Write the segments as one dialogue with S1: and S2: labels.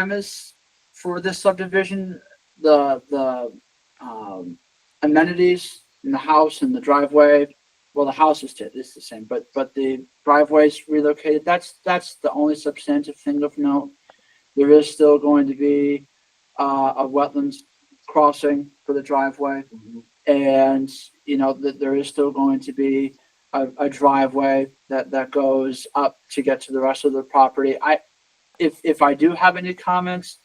S1: premise for this subdivision, the, the, um, amenities in the house and the driveway, well, the house is, t- is the same, but, but the driveway's relocated, that's, that's the only substantive thing of note. There is still going to be, uh, a wetlands crossing for the driveway. And, you know, that there is still going to be a, a driveway that, that goes up to get to the rest of the property. I, if, if I do have any comments,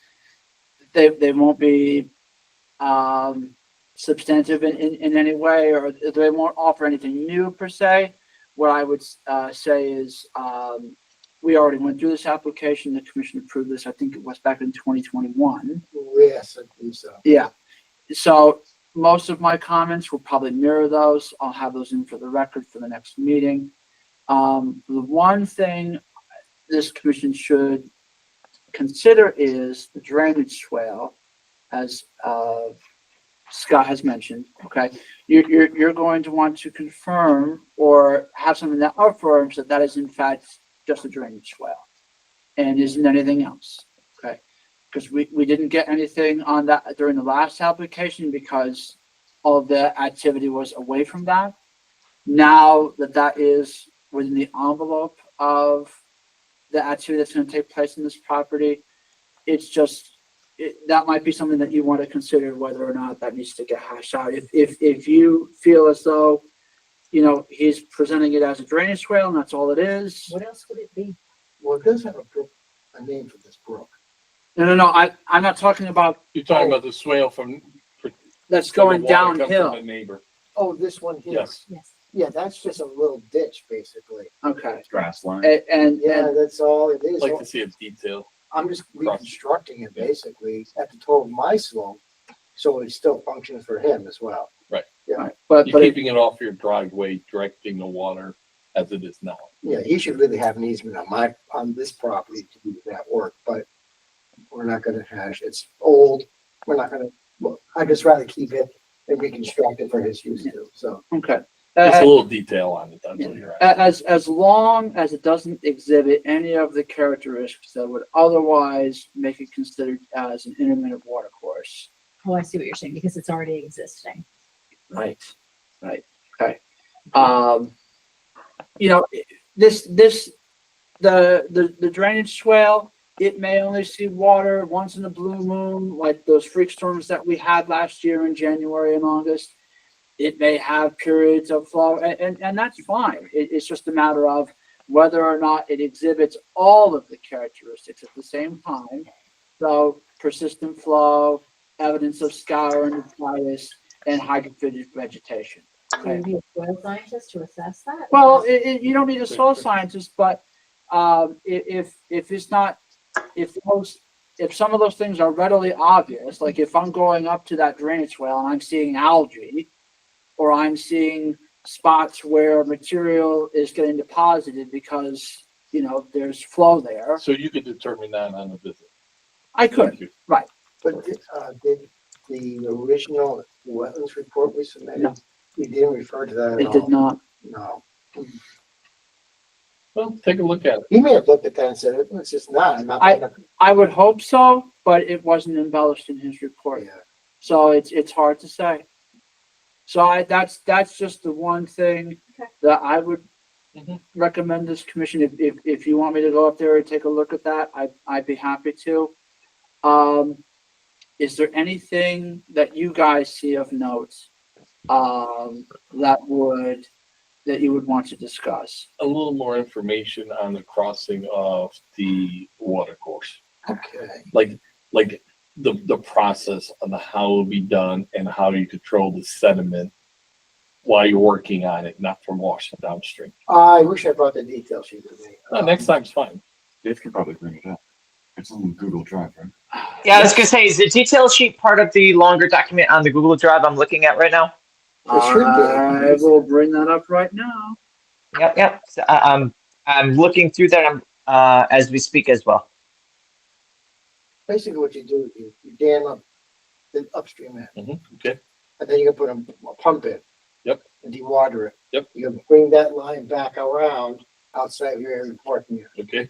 S1: they, they won't be, um, substantive in, in, in any way, or they won't offer anything new per se. What I would, uh, say is, um, we already went through this application, the commission approved this, I think it was back in twenty twenty-one.
S2: Yes, I think so.
S1: Yeah. So most of my comments will probably mirror those. I'll have those in for the record for the next meeting. Um, the one thing this commission should consider is the drainage swale, as, uh, Scott has mentioned, okay? You're, you're, you're going to want to confirm or have something that affirms that that is in fact just a drainage swale and isn't anything else. Because we, we didn't get anything on that during the last application because all the activity was away from that. Now that that is within the envelope of the activity that's gonna take place in this property, it's just, it, that might be something that you want to consider whether or not that needs to get hashed out. If, if, if you feel as though, you know, he's presenting it as a drainage swale and that's all it is.
S3: What else would it be?
S2: Well, it does have a brook, a name for this brook.
S1: No, no, no, I, I'm not talking about
S4: You're talking about the swale from.
S1: that's
S4: from
S1: Oh. going
S4: the water that comes from
S1: downhill.
S4: The neighbor.
S2: Oh, this one here.
S4: Yes.
S3: Yes.
S2: Yeah, that's just a little ditch, basically.
S1: Okay.
S5: grass line.
S1: A- And, and,
S2: Yeah, that's all it
S4: I'd
S2: is.
S4: Like to see a detail.
S2: I'm just reconstructing it basically at the toe of my slope, so it still functions for him as well.
S1: Right, But,
S4: You're
S1: but, it-
S4: keeping it off your driveway, directing the water as it is now.
S2: Yeah, he should really have an easement on my, on this property to do that work, but we're not gonna hash, it's old, we're not gonna, well, I'd just rather keep it and reconstruct it for his use too, so.
S1: okay.
S4: Just
S1: A-
S4: a little detail on it, that's what you're at.
S1: a- As, as long as it doesn't exhibit any of the characteristics that would otherwise make it considered as an intermittent water course.
S3: Oh, I see what you're saying, because it's already existing.
S1: Right. Right, okay. Um, you know, this, this, the, the, the drainage swale, it may only see water once in a blue moon, like those freak storms that we had last year in January and August. It may have periods of flow and, and, and that's fine. It, it's just a matter of whether or not it exhibits all of the characteristics at the same time. So persistent flow, evidence of scour and bias, and hydrophytic vegetation.
S3: Would you be a soil scientist to assess that?
S1: Well, it, it, you don't need a soil scientist, but, um, i- if, if it's not, if most, if some of those things are readily obvious, like if I'm going up to that drainage well and I'm seeing algae, or I'm seeing spots where material is getting deposited because, you know, there's flow there,
S4: So you could determine that on a visit.
S1: I could.
S2: But, uh, did the original wetlands report we
S1: No.
S2: submitted, we didn't refer to that at
S1: It did
S2: all?
S1: not.
S2: No.
S4: Well, take a look at it.
S2: He may have looked at that and said, it's just not, I'm not.
S1: I-
S2: gonna-"
S1: I would hope so, but it wasn't embellished in his report.
S2: Yeah.
S1: So it's, it's hard to say. So I, that's, that's just the one thing
S3: Okay.
S1: that I would
S4: Mhm.
S1: recommend this commission, if, if, if you want me to go up there and take a look at that, I, I'd be happy to. Um, is there anything that you guys see of notes, um, that would, that you would want to discuss?
S4: A little more information on the crossing of the water course.
S2: Okay,
S4: like like the the process on the how it'll be done and how you control the sediment while you're working on it, not from washing downstream.
S2: I wish I brought the detail sheet with me.
S4: No, next time's fine.
S5: Dave could probably bring it up. It's on Google Drive, right?
S6: Yeah, I was gonna say, is the detail sheet part of the longer document on the Google Drive I'm looking at right now?
S2: It should be.
S1: I will bring that up right now.
S6: Yep, yep. So, I, I'm I'm looking through that um, uh, as we speak as well.
S2: Basically what you do, is you, you dam up the upstream end.
S4: Mhm, okay.
S2: And then you can put a, a pump in.
S4: Yep.
S2: And dewater it.
S4: Yep.
S2: You can bring that line back around outside of your area of parking area
S4: Okay.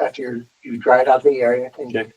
S2: after you're- you've dried out the area and
S4: Okay.